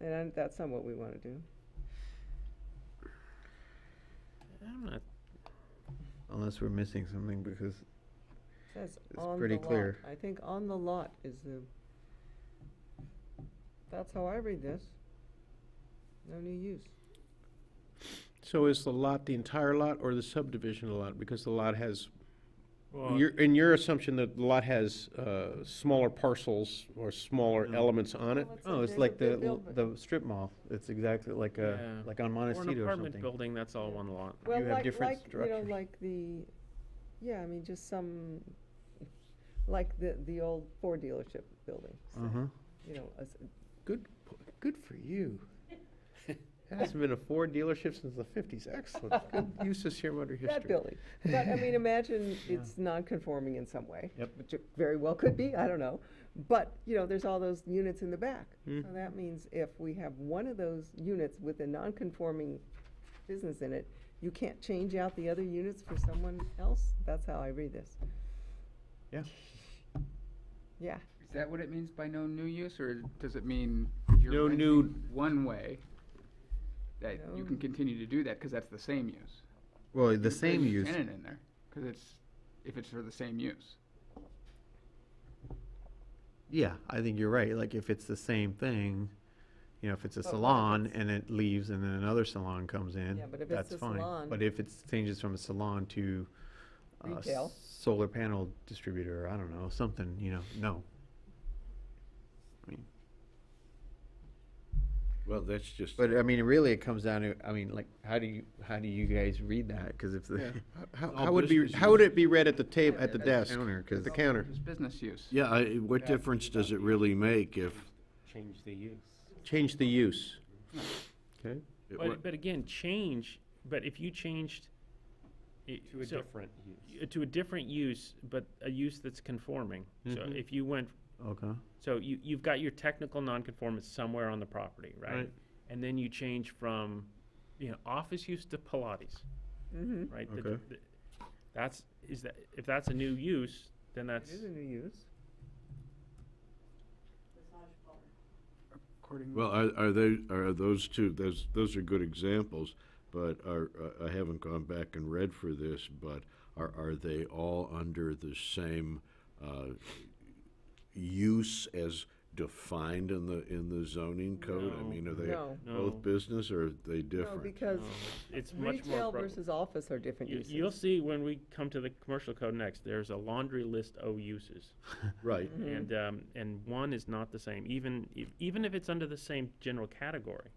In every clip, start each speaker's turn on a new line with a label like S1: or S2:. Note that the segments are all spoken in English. S1: And I- that's not what we want to do.
S2: I'm not,
S3: Unless we're missing something because,
S1: Says
S3: It's
S1: on the
S3: pretty
S1: lot.
S3: clear.
S1: I think on the lot is the, that's how I read this. No new use.
S2: so is the lot the entire lot or the subdivision of the lot? Because the lot has,
S4: Well,
S2: your, in your assumption that the lot has, uh, smaller parcels or smaller
S3: No.
S2: elements on it?
S1: Well, it's a
S3: oh, it's
S1: big-
S3: like
S1: big
S3: the, l-
S1: building.
S3: the strip mall. It's exactly like a,
S2: Yeah.
S3: like on
S2: Or
S3: Montecito
S2: an
S3: or
S2: apartment
S3: something.
S2: building, that's all one lot.
S1: Well,
S3: have
S1: like-
S3: different
S1: like, You
S3: structures.
S1: know, like the, yeah, I mean, just some, like the, the old Ford dealership building, say,
S3: Uh-huh.
S1: you know, a s-
S3: Good, po- good for you. There hasn't been a Ford dealership since the fifties. Excellent. Good use of Sherwood history.
S1: that building. But I mean, imagine
S3: Yeah.
S1: it's non-conforming in some way.
S3: Yep.
S1: Which it very well could be, I don't know. But, you know, there's all those units in the back. So
S3: Mm.
S1: that means if we have one of those units with a non-conforming business in it, you can't change out the other units for someone else? That's how I read this.
S3: Yeah.
S1: Yeah.
S5: Is that what it means by no new use, or does it mean
S2: No
S5: you're
S2: new-
S5: renting one way? That you
S1: No.
S5: can continue to do that, cause that's the same use.
S3: Well, the
S5: There's
S3: same
S5: a
S3: use.
S5: Tenant in there, cause it's, if it's for the same use.
S3: Yeah, I think you're right. Like if it's the same thing, you know, if it's a
S1: But what if
S3: salon
S1: it's-
S3: and it leaves and then another salon comes in,
S1: Yeah, but if it's
S3: that's
S1: a
S3: fine.
S1: salon-
S3: But if it changes from a salon to a
S1: Retail.
S3: s- solar panel distributor, I don't know, something, you know, no. I mean,
S6: Well, that's just.
S3: But I mean, really it comes down to, I mean, like, how do you, how do you guys read that? Cause if the.
S2: How,
S6: All
S2: how would be,
S6: business
S2: how would it be read at the table, at the
S3: At the
S2: desk?
S3: counter, 'cause-
S2: At the counter?
S5: It's business use.
S6: Yeah, I, what difference does it really make if?
S7: change the use.
S2: Change the use. Okay?
S6: it wa-
S7: But, but again, change, but if you changed.
S4: to a different use.
S7: To a different use, but a use that's conforming. So
S6: Mm-hmm.
S3: Mhm.
S7: if you went,
S3: Okay.
S7: so you, you've got your technical nonconformance somewhere on the property, right?
S3: Right.
S7: And then you change from, you know, office use to Pilates,
S1: Mm-hmm.
S7: right? The-
S3: Okay.
S7: the- That's, is that, if that's a new use, then
S1: It
S7: that's,
S1: is a new use.
S5: According.
S6: Well, are, are they, are those two, those, those are good examples, but are, uh, I haven't gone back and read for this, but are, are they all under the same, uh, use as defined in the, in the zoning code? I
S7: No.
S6: mean, are they
S1: No.
S7: No.
S6: both business or are they
S1: No,
S6: different?
S1: because
S7: no, it's much more.
S1: retail
S7: broad.
S1: versus office are different
S7: You- You'll
S1: uses.
S7: see when we come to the commercial code next, there's a laundry list of uses.
S6: Right,
S3: Mm.
S7: And, um, and one is not the same, even, if- even if it's under the same general category.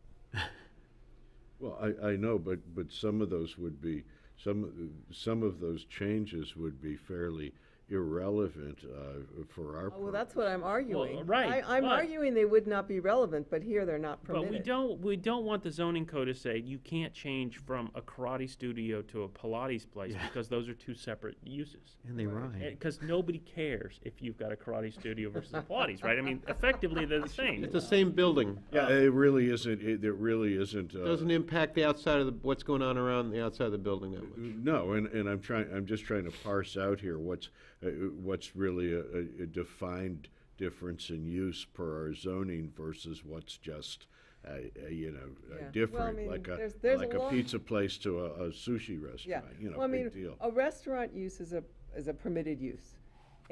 S6: well, I, I know, but, but some of those would be, some, some of those changes would be fairly irrelevant, uh, for our
S1: Oh, well, that's what I'm arguing.
S7: right,
S1: I, I'm
S7: but-
S1: arguing they would not be relevant, but here they're not
S7: But we
S1: permitted.
S7: don't, we don't want the zoning code to say you can't change from a karate studio to a Pilates place because those are two separate uses.
S3: And they rhyme.
S7: Because nobody cares if you've got a karate studio versus a Pilates, right? I mean, effectively, they're the same.
S2: It's the same building.
S6: Yeah, Uh, it really isn't, it, it really isn't, uh,
S3: e-,
S2: Doesn't impact the outside of the, what's going on around the outside of the building that much.
S6: no, and, and I'm trying, I'm just trying to parse out here what's, uh, what's really a, a- a defined difference in use per our zoning versus what's just, uh, uh, you know,
S1: Yeah. Well, I
S6: uh, different,
S1: mean,
S6: like a,
S1: there's- there's a
S6: like a
S1: lot-
S6: pizza place to a, a sushi
S1: Yeah.
S6: restaurant, you
S1: Well, I
S6: know,
S1: mean, oh,
S6: big deal.
S1: A restaurant use is a, is a permitted use.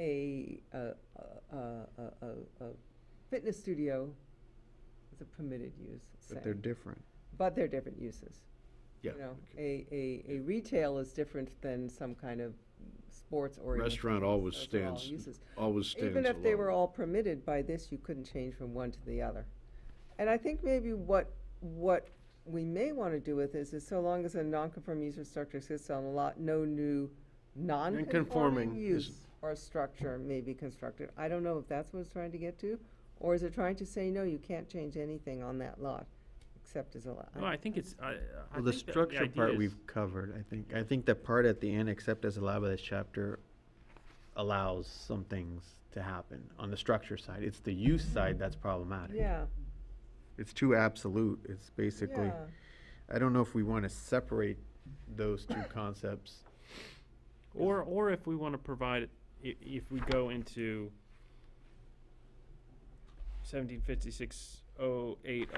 S1: A, uh, uh, uh, uh, uh, fitness studio is a permitted use,
S3: But they're
S1: same.
S3: different.
S1: but they're different uses.
S6: Yeah,
S1: You know,
S6: okay.
S1: a, a, a retail is different than some kind of sports oriented.
S6: Restaurant always stands, always stands
S1: Even if they were
S6: alone.
S1: all permitted by this, you couldn't change from one to the other. And I think maybe what, what we may want to do with this is so long as a non-conforming use or structure exists on a lot, no new non-conforming
S2: Non-conforming is-
S1: use or structure may be constructed. I don't know if that's what it's trying to get to, or is it trying to say, no, you can't change anything on that lot, except as a lot.
S7: Well, I think it's, I, I
S3: Well, the
S7: think that
S3: structure
S7: idea
S3: part
S7: is-
S3: we've covered, I think. I think the part at the end, except as allowed by this chapter, allows some things to happen on the structure side. It's the use side that's problematic.
S1: Yeah,
S3: It's too absolute. It's basically,
S1: yeah.
S3: I don't know if we want to separate those two concepts.
S7: Or, or if we want to provide, i- if we go into seventeen fifty-six oh eight